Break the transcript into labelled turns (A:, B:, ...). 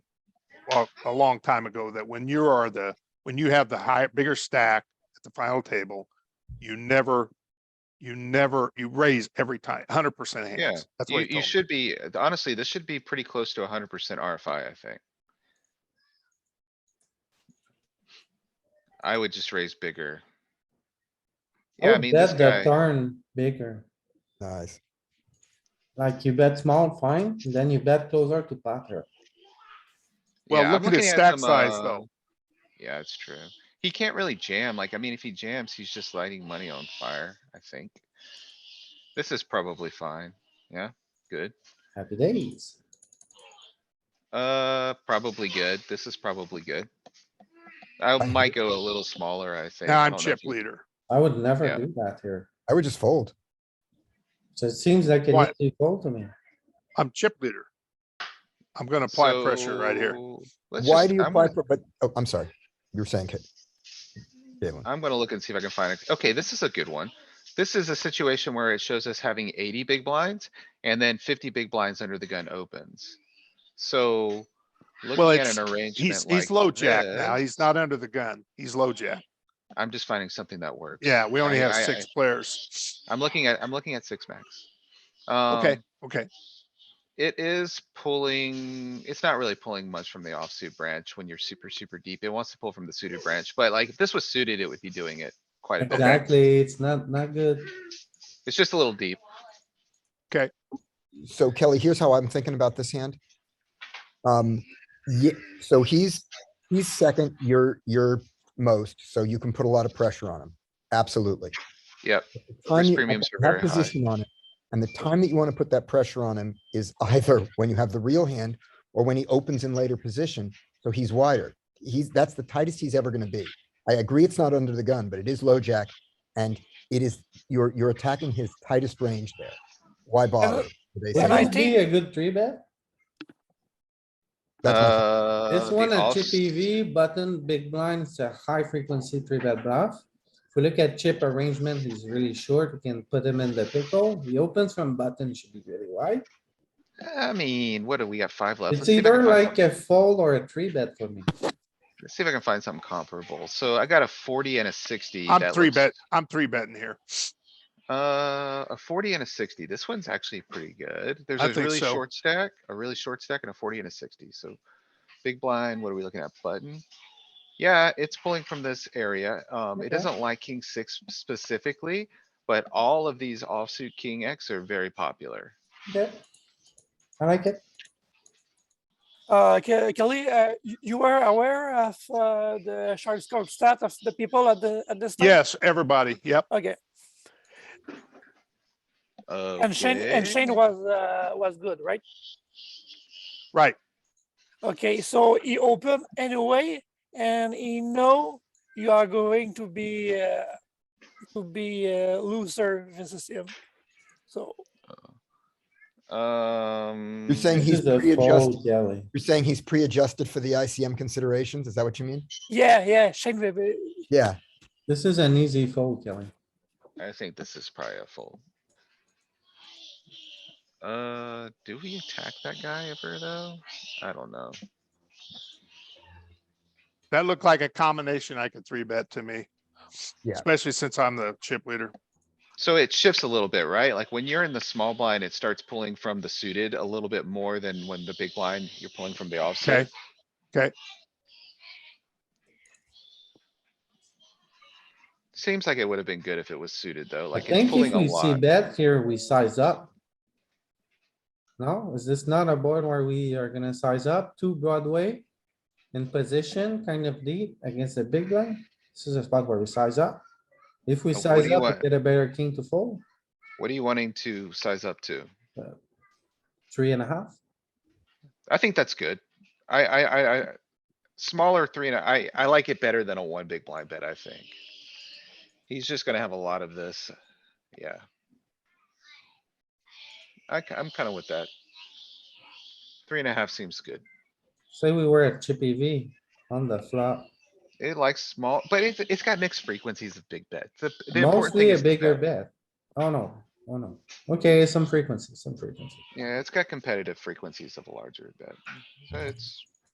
A: a, a long time ago that when you are the, when you have the higher, bigger stack at the final table, you never, you never, you raise every time, hundred percent
B: Yeah,
A: hands. That's
B: You,
A: what he
B: you
A: told me.
B: should be, uh, honestly, this should be pretty close to hundred percent RFI, I think. I would just raise bigger. Yeah, I
C: Oh,
B: mean, this
C: bet the
B: guy,
C: turn bigger,
D: Nice.
C: like you bet small, fine, then you bet closer to pocket.
A: Well,
B: yeah, I'm
A: look at his
B: looking
A: stack
B: some,
A: size,
B: uh,
A: though.
B: Yeah, it's true. He can't really jam. Like, I mean, if he jams, he's just lighting money on fire, I think. This is probably fine. Yeah, good.
C: Happy days.
B: Uh, probably good. This is probably good. I
D: I-
B: might go a little smaller, I think.
A: Now
B: I
A: I'm
B: don't know
A: chip
B: if you-
A: leader.
C: I would never
B: Yeah.
C: do that here.
D: I would just fold.
C: So it seems like an
A: Why?
C: easy fold to me.
A: I'm chip leader. I'm gonna apply pressure right here.
B: So, let's
D: Why
B: just-
D: do you
B: I'm
D: apply
B: gonna-
D: for, but, oh, I'm sorry. You were saying, Kate. Galen,
B: I'm gonna look and see if I can find it. Okay, this is a good one. This is a situation where it shows us having eighty big blinds and then fifty big blinds under the gun opens. So. Looking at
A: it's-
B: an arrangement
A: He's,
B: like
A: he's low jack now.
B: this,
A: He's not under the gun. He's low jack.
B: I'm just finding something that works.
A: Yeah, we only
B: I-
A: have
B: I-
A: six players.
B: I'm looking at, I'm looking at six max.
A: Okay,
B: Um,
A: okay.
B: It is pulling, it's not really pulling much from the offsuit branch when you're super, super deep. It wants to pull from the suited branch, but like if this was suited, it would be doing it quite a bit.
C: Exactly, it's not, not good.
B: It's just a little deep.
D: so Kelly, here's how I'm thinking about this hand. Um, yeah, so he's, he's second, you're, you're most, so you can put a lot of pressure on him. Absolutely.
B: Yep.
D: time you-
B: premiums
D: okay,
B: are very
D: have
B: high.
D: position on it, And the time that you want to put that pressure on him is either when you have the real hand or when he opens in later position, so he's wider. He's, that's the tightest he's ever gonna be. I agree it's not under the gun, but it is low jack and it is, you're, you're attacking his tightest range there. Why bother?
C: Would
D: basically?
E: I
C: this be
E: think-
C: a good three bet?
B: Uh,
D: That's my-
C: This
B: This
C: one at chip EV button, big blind, it's a high frequency three bet bluff. If we look at chip arrangement, he's really short. We can put him in the pickle. He opens from button, should be really wide.
B: I mean, what do we got? Five left? Let's
C: It's
B: see if I can
C: either
B: find
C: like
B: something-
C: a fold or a three bet for me.
B: let's See if I can find something comparable. So I got a forty and a sixty.
A: I'm
B: that
A: three
B: looks-
A: bet, I'm three betting here.
B: Uh, a forty and a sixty. This one's actually pretty good. There's
A: I
B: a
A: think
B: really
A: so.
B: short stack, a really short stack and a forty and a sixty. So big blind, what are we looking at? Button? Yeah, it's pulling from this area. Um,
C: Okay.
B: it doesn't like king six specifically, but all of these offsuit king X are very popular.
C: Okay. I like it.
E: Uh, Ke- Kelly, uh, y- you were aware of uh, the Sharks Code stat of the people at the at this time?
A: Yes, everybody. Yep.
E: Okay. And Shane and
B: Okay.
E: Shane was uh, was good, right?
A: Right.
E: Okay, so he opened anyway, and he know you are going to be uh, to be a loser versus him. So
B: Um.
D: You're saying
C: This
D: he's
C: is a
D: pre-adjusted,
C: fold, Kelly.
D: you're saying he's pre-adjusted for the ICM considerations? Is that what you mean?
E: yeah, yeah, Shane will be
D: Yeah,
C: This is an easy fold, Kelly.
B: I think this is probably a fold. Uh, do we attack that guy ever though? I don't know.
A: That looked like a combination I could three bet to me.
D: Yeah.
A: Especially since I'm the chip leader.
B: So it shifts a little bit, right? Like when you're in the small blind, it starts pulling from the suited a little bit more than when the big blind, you're pulling from the offsuit.
A: okay.
B: Seems like it would have been good if it was suited though,
C: I
B: like it's
C: think if
B: pulling a
C: we see
B: lot.
C: bet here, we size up. No, is this not a board where we are gonna size up to Broadway? In position, kind of deep against the big line? This is a spot where we size up. If we
B: But what do
C: size
B: you
C: up, we
B: want?
C: get a better king to fold,
B: What are you wanting to size up to?
C: three and a half.
B: I think that's good. I, I, I, I, smaller three and a- I, I like it better than a one big blind bet, I think. He's just gonna have a lot of this. Yeah. I, am kinda with that. Three and a half seems good.
C: Say we were at chippy V on the flop,
B: It likes small, but it's, it's got mixed frequencies of big bets. The- the important thing
C: mostly a
B: is the
C: bigger
B: bet.
C: bet. Oh no, oh no. Okay, some frequency, some frequency.
B: Yeah, it's got competitive frequencies of a larger bet. So it's,